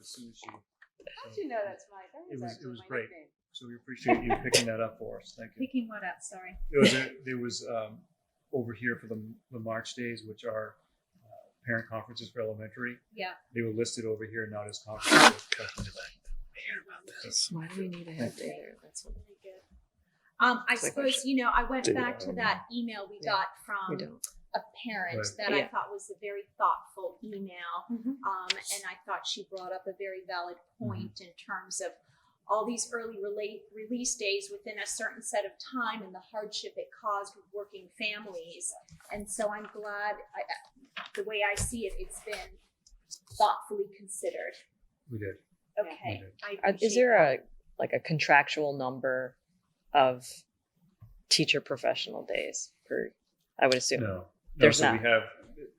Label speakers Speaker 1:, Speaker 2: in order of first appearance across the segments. Speaker 1: as soon as you.
Speaker 2: How'd you know that's Mike? That
Speaker 1: It
Speaker 2: was,
Speaker 1: was-
Speaker 2: actually
Speaker 1: it was
Speaker 2: my
Speaker 1: great.
Speaker 2: nickname.
Speaker 1: So we appreciate you picking that up for us. Thank you.
Speaker 3: Picking what up, sorry.
Speaker 1: There was, a, there was um, over here for the, the March days, which are uh, parent conferences for elementary.
Speaker 3: Yeah.
Speaker 1: They were listed over here, not as conferences.
Speaker 4: Why do we need a head day there? That's what
Speaker 2: Really good.
Speaker 3: Um, I
Speaker 4: It's like we
Speaker 3: suppose, you know, I went
Speaker 4: do
Speaker 3: back
Speaker 4: that
Speaker 3: to
Speaker 4: on-
Speaker 3: that email we
Speaker 4: yeah,
Speaker 3: got
Speaker 4: we
Speaker 3: from
Speaker 4: don't.
Speaker 3: a parent
Speaker 1: Right.
Speaker 3: that I
Speaker 4: Yeah.
Speaker 3: thought was a very thoughtful email.
Speaker 2: Mhm.
Speaker 3: Um, and I thought she brought up a very valid point in
Speaker 4: Mm-hmm.
Speaker 3: terms of all these early relate, release days within a certain set of time and the hardship it caused with working families. And so I'm glad, I, I- the way I see it, it's been thoughtfully considered.
Speaker 1: We did.
Speaker 3: Okay.
Speaker 1: Yeah.
Speaker 3: I
Speaker 4: Are- Uh, Is
Speaker 3: appreciate
Speaker 4: there
Speaker 3: that.
Speaker 4: a, like a contractual number of teacher professional days per, I would assume,
Speaker 1: No. No,
Speaker 4: There's
Speaker 1: so we
Speaker 4: not.
Speaker 1: have,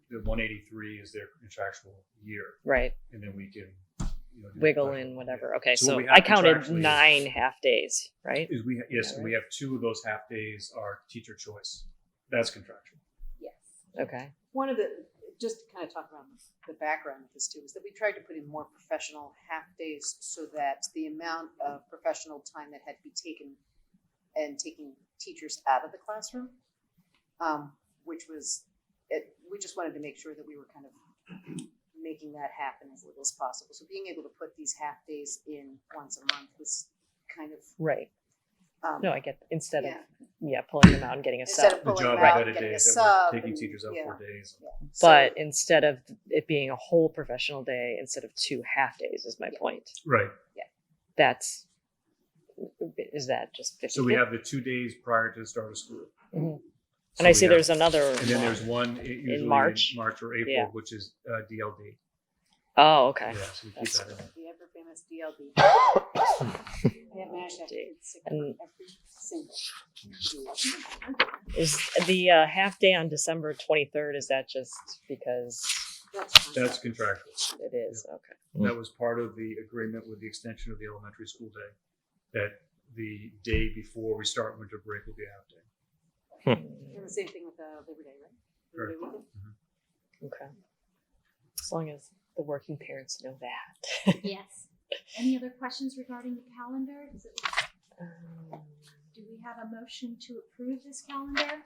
Speaker 1: the 183 is their contractual year,
Speaker 4: right?
Speaker 1: and then we can. you know, do
Speaker 4: Wiggle
Speaker 1: that.
Speaker 4: in whatever. Okay,
Speaker 1: So what we
Speaker 4: so
Speaker 1: have
Speaker 4: I counted
Speaker 1: contractually is-
Speaker 4: nine half days, right?
Speaker 1: Is we, yes,
Speaker 4: Yeah,
Speaker 1: we have two of those half days are teacher choice. That's contractual.
Speaker 3: Yes.
Speaker 4: Okay.
Speaker 2: One of the, just to kind of talk about the background of this too, is that we tried to put in more professional half days so that the amount of professional time that had to be taken and taking teachers out of the classroom, um, which was, it, we just wanted to make sure that we were kind of making that happen as little as possible. So being able to put these half days in once a month was kind of.
Speaker 4: Right.
Speaker 2: um,
Speaker 4: No, I get, instead of,
Speaker 2: Yeah.
Speaker 4: yeah, pulling them out and getting a
Speaker 2: Instead of
Speaker 4: sub.
Speaker 1: The
Speaker 2: pulling
Speaker 1: job
Speaker 2: them
Speaker 1: of
Speaker 2: out, and
Speaker 1: vetted
Speaker 2: getting a
Speaker 1: days that
Speaker 2: sub.
Speaker 1: we're taking
Speaker 2: and-
Speaker 1: teachers out
Speaker 2: yeah,
Speaker 1: for days.
Speaker 2: yeah. So-
Speaker 4: But instead of it being a whole professional day, instead of two half days is my point.
Speaker 1: Right.
Speaker 4: That's, is that just fifty?
Speaker 1: So we have the two days prior to the start of school.
Speaker 4: Mhm.
Speaker 1: So
Speaker 4: And I
Speaker 1: we
Speaker 4: see
Speaker 1: have-
Speaker 4: there's another.
Speaker 1: And then
Speaker 4: one.
Speaker 1: there's one i- usually in
Speaker 4: March?
Speaker 1: March or April,
Speaker 4: Yeah.
Speaker 1: which is uh, DLD.
Speaker 4: Oh,
Speaker 1: Yeah,
Speaker 4: okay.
Speaker 1: so we keep
Speaker 4: That's
Speaker 1: that in.
Speaker 2: The ever famous DLD. Yeah, man, I
Speaker 4: Indeed.
Speaker 2: get sick
Speaker 4: And-
Speaker 2: for every single deal.
Speaker 4: Is the uh, half day on December 23rd? Is that just because
Speaker 2: That's fine.
Speaker 1: That's contractual.
Speaker 4: it is? Okay.
Speaker 1: That was part of the agreement with the extension of the elementary school day, that the day before we start winter break will be a half day.
Speaker 2: And the same thing with uh, Labor Day, right? Labor Day weekend?
Speaker 4: Okay. As long as the working parents know that.
Speaker 3: Yes. Any other questions regarding the calendar? Is it,
Speaker 4: Um,
Speaker 3: do we have a motion to approve this calendar?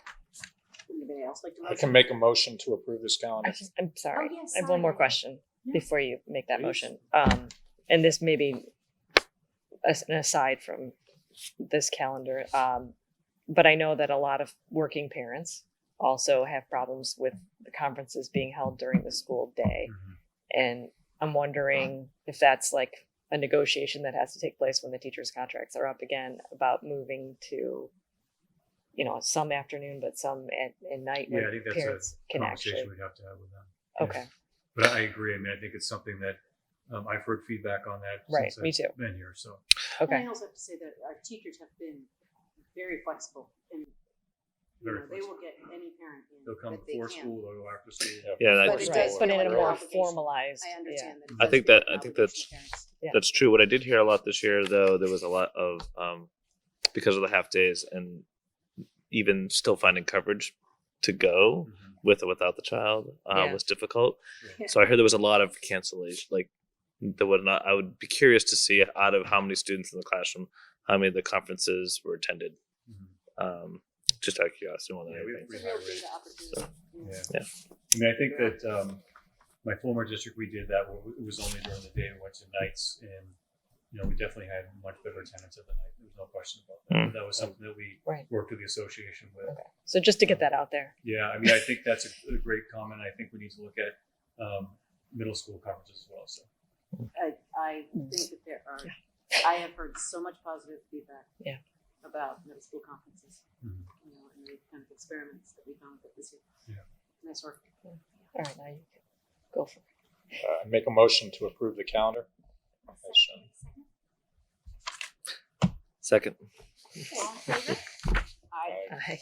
Speaker 2: Anybody else like to?
Speaker 5: I can
Speaker 2: motion?
Speaker 5: make a motion to approve this
Speaker 4: I
Speaker 5: calendar.
Speaker 4: just, I'm sorry.
Speaker 3: Oh, yes,
Speaker 4: I have one more
Speaker 3: sorry.
Speaker 4: question
Speaker 3: No.
Speaker 4: before you make that
Speaker 5: Please.
Speaker 4: motion. Um, and this may be as- an aside from this calendar, um, but I know that a lot of working parents also have problems with the conferences being held during the school day.
Speaker 1: Mhm.
Speaker 4: And I'm wondering if that's like a negotiation that has to take place when the teachers' contracts are up again about moving to, you know, some afternoon, but some at, at night
Speaker 1: Yeah, I
Speaker 4: when
Speaker 1: think that's a
Speaker 4: parents can actually.
Speaker 1: Conversation we'd have to have with them.
Speaker 4: Okay,
Speaker 1: But I agree. I mean, I think it's something that, um, I've heard feedback on that.
Speaker 4: Right,
Speaker 1: since
Speaker 4: me
Speaker 1: I've
Speaker 4: too.
Speaker 1: Been here, so.
Speaker 4: okay.
Speaker 2: And I also have to say that our teachers have been very flexible and, you
Speaker 1: Very
Speaker 2: know, they will get any parent in.
Speaker 1: They'll come
Speaker 2: that they
Speaker 1: before
Speaker 2: can.
Speaker 1: school, they'll go after school.
Speaker 6: Yeah, that-
Speaker 2: But it does
Speaker 4: But
Speaker 2: feel
Speaker 4: in
Speaker 2: like
Speaker 4: a
Speaker 2: an
Speaker 4: more
Speaker 2: obligation.
Speaker 4: formalized.
Speaker 2: I
Speaker 4: yeah.
Speaker 2: understand that. it
Speaker 6: I
Speaker 2: does
Speaker 6: think
Speaker 2: feel like
Speaker 6: that-
Speaker 2: an
Speaker 6: I think
Speaker 2: obligation to parents.
Speaker 4: Yeah.
Speaker 6: That's true. What I did hear a lot this year, though, there was a lot of um, because of the half days and even still finding coverage to go
Speaker 1: Mhm.
Speaker 6: with or without the child uh,
Speaker 4: Yeah.
Speaker 6: was difficult.
Speaker 2: Yeah.
Speaker 6: So I heard there was a lot of cancellation, like that would not. I would be curious to see out of how many students in the classroom, how many of the conferences were attended.
Speaker 1: Mhm.
Speaker 6: Um, just out of curiosity more than
Speaker 1: Yeah, we-
Speaker 6: anything.
Speaker 2: It's a
Speaker 1: high
Speaker 2: real
Speaker 1: rate.
Speaker 2: data opportunity. you
Speaker 1: mm-hmm.
Speaker 2: know.
Speaker 1: Yeah.
Speaker 6: Yeah.
Speaker 1: I mean, I think that um, my former district, we did that. Where it was only during the day. We went to nights, and you know, we definitely had much better attendance at the night. There was no question about that.
Speaker 6: Mm.
Speaker 1: But that was something that we
Speaker 4: Right.
Speaker 1: worked with the association with.
Speaker 4: Okay. So just to get that out there.
Speaker 1: Yeah, I mean, I think that's a, a great comment. I think we need to look at um, middle school conferences as well. So
Speaker 2: I, I think that there are, I have heard so much positive feedback.
Speaker 4: Yeah.
Speaker 2: About middle school conferences, you
Speaker 1: Mhm.
Speaker 2: know, and the kind of experiments that we found that this year.
Speaker 1: Yeah.
Speaker 2: Nice work.
Speaker 4: All right, now you can go for it.
Speaker 5: Uh, I make a motion to approve the calendar. Motion.
Speaker 6: Second.
Speaker 3: All in favor?
Speaker 2: I,
Speaker 4: Aye.